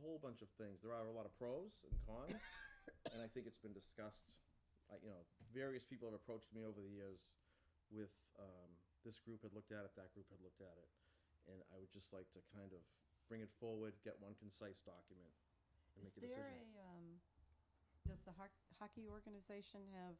whole bunch of things. There are a lot of pros and cons, and I think it's been discussed. I, you know, various people have approached me over the years with um, this group had looked at it, that group had looked at it, and I would just like to kind of bring it forward, get one concise document, and Is make a there decision. a, um, does the hoc- hockey organization have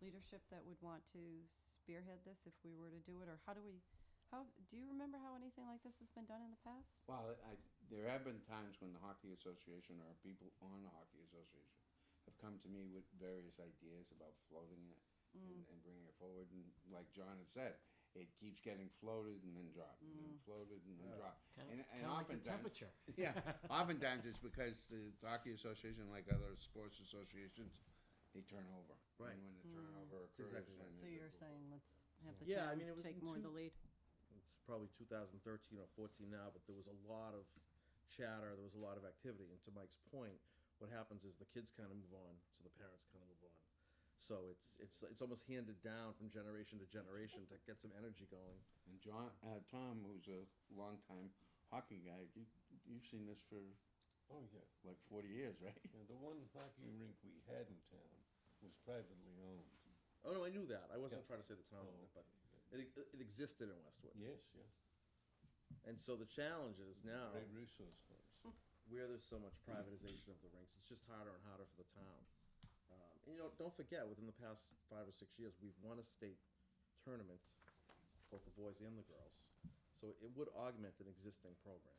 leadership that would want to spearhead this if we were to do it, or how do we, how, do you remember how anything like this has been done in the past? Well, I, there have been times when the Hockey Association or people on the Hockey Association have come to me with various ideas about floating it Mm. and, and bringing it forward. And like John had said, it keeps getting floated and then dropped, and then floated and then dropped. Mm. Kinda- and and kinda like the oftentimes- temperature. yeah, oftentimes it's because the Hockey Association, like other sports associations, they turn over. Right. And when the Mm. turnover That's occurs, exactly right. then So there's a- you're saying let's have the Yeah, I mean, it town was in take more of the two- lead? it's probably 2013 or 14 now, but there was a lot of chatter, there was a lot of activity. And to Mike's point, what happens is the kids kind of move on, so the parents kind of move on. So it's it's it's almost handed down from generation to generation to get some energy going. And John, uh, Tom, who's a longtime hockey guy, you, you've seen this for Oh, yeah. like 40 years, right? Yeah, the one hockey rink we had in town was privately owned. Oh no, I knew that. I wasn't Yeah. trying to say the town Oh, owned it, but it, it existed in Westwood. Yes, yeah. And so the challenge is now Great resource for us. where there's so much privatization of the rinks, it's just harder and harder for the town. Um, and you know, don't forget, within the past five or six years, we've won a state tournament, both the boys and the girls. So it would augment an existing program.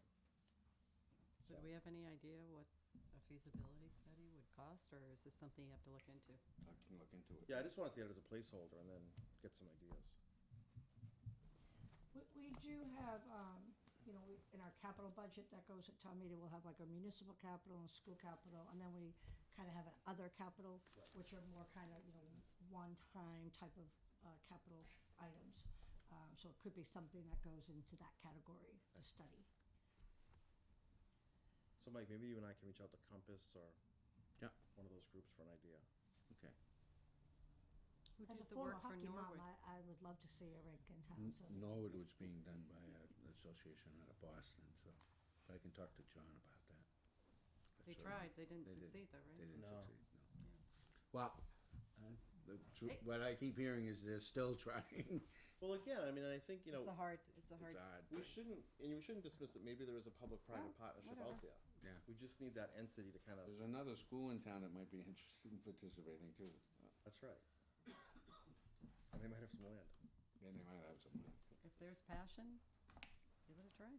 So do we have any idea what a feasibility study would cost, or is this something you have to look into? I can look into it. Yeah, I just wanted to get it as a placeholder and then get some ideas. We, we do have, um, you know, we, in our capital budget that goes at town meeting, we'll have like a municipal capital and school capital, and then we kind of have an other capital, which are more kind of, you know, one-time type of, uh, capital items. Um, so it could be something that goes into that category to study. So Mike, maybe you and I can reach out to Compass or Yeah. one of those groups for an idea. Okay. Who As a did the former work for hockey mom, Norwood? I, I would love to see a rink in Mm. town, so. Norwood was being done by a- an association out of Boston, so I can talk to John about that. They That's all. tried, they didn't They did. succeed though, right? They didn't No. succeed, no. Yeah. Well, uh, the tr- Hey. what I keep hearing is they're still trying. Well, again, I mean, I think, you It's a know, hard, it's a It's hard, odd. we shouldn't, and we shouldn't dismiss that maybe there is a No, public-private partnership out whatever. there. Yeah. We just need that entity to kind of, There's another school in town that might be interested in participating too. Uh, that's right. And they might have some land. And they might have some. if there's passion, give it a try.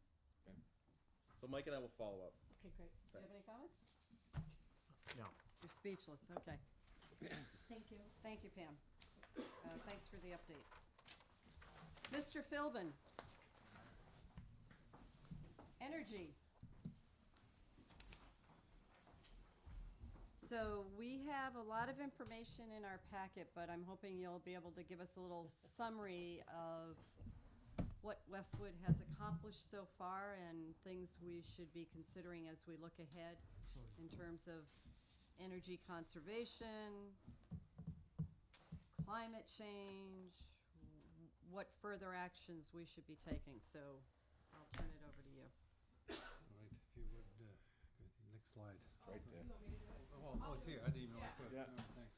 So Mike and I will follow up. Okay, great. Do you have any Thanks. comments? No. You're speechless, okay. Thank you. Thank you, Pam. Uh, Thanks for the update. Mr. Philbin. Energy. So we have a lot of information in our packet, but I'm hoping you'll be able to give us a little summary of what Westwood has accomplished so far and things we should be considering as we look ahead in terms of energy conservation, climate change, w- what further actions we should be taking, so I'll turn it over to you. All right, if you would, uh, go to the next slide. Right there. Oh, oh, it's here, I didn't even look good. Yeah. Oh, Thanks,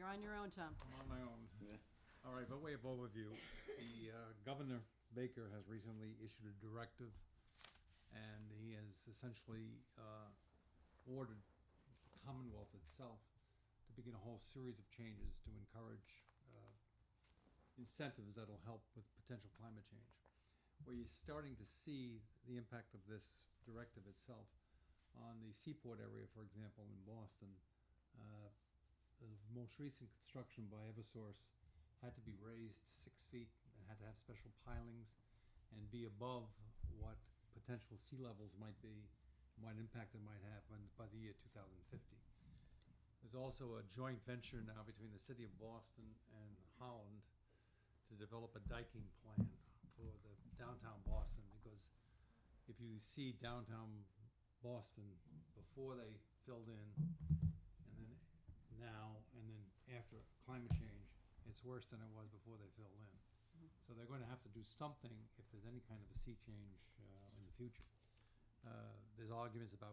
You're on your own, Tom. I'm on my own. Yeah. All right, by way of overview, the uh, Governor Baker has recently issued a directive, and he has essentially uh, ordered Commonwealth itself to begin a whole series of changes to encourage uh, incentives that'll help with potential climate change. Where you're starting to see the impact of this directive itself on the seaport area, for example, in Boston, uh, the most recent construction by Eversource had to be raised six feet and had to have special pilings and be above what potential sea levels might be, what impact it might have when- by the year 2050. There's also a joint venture now between the city of Boston and Holland to develop a diking plan for the downtown Boston because if you see downtown Boston before they filled in and then now and then after climate change, it's worse than it was before they filled in. So they're going to have to do something if there's any kind of a sea change uh, in the future. Uh, there's arguments about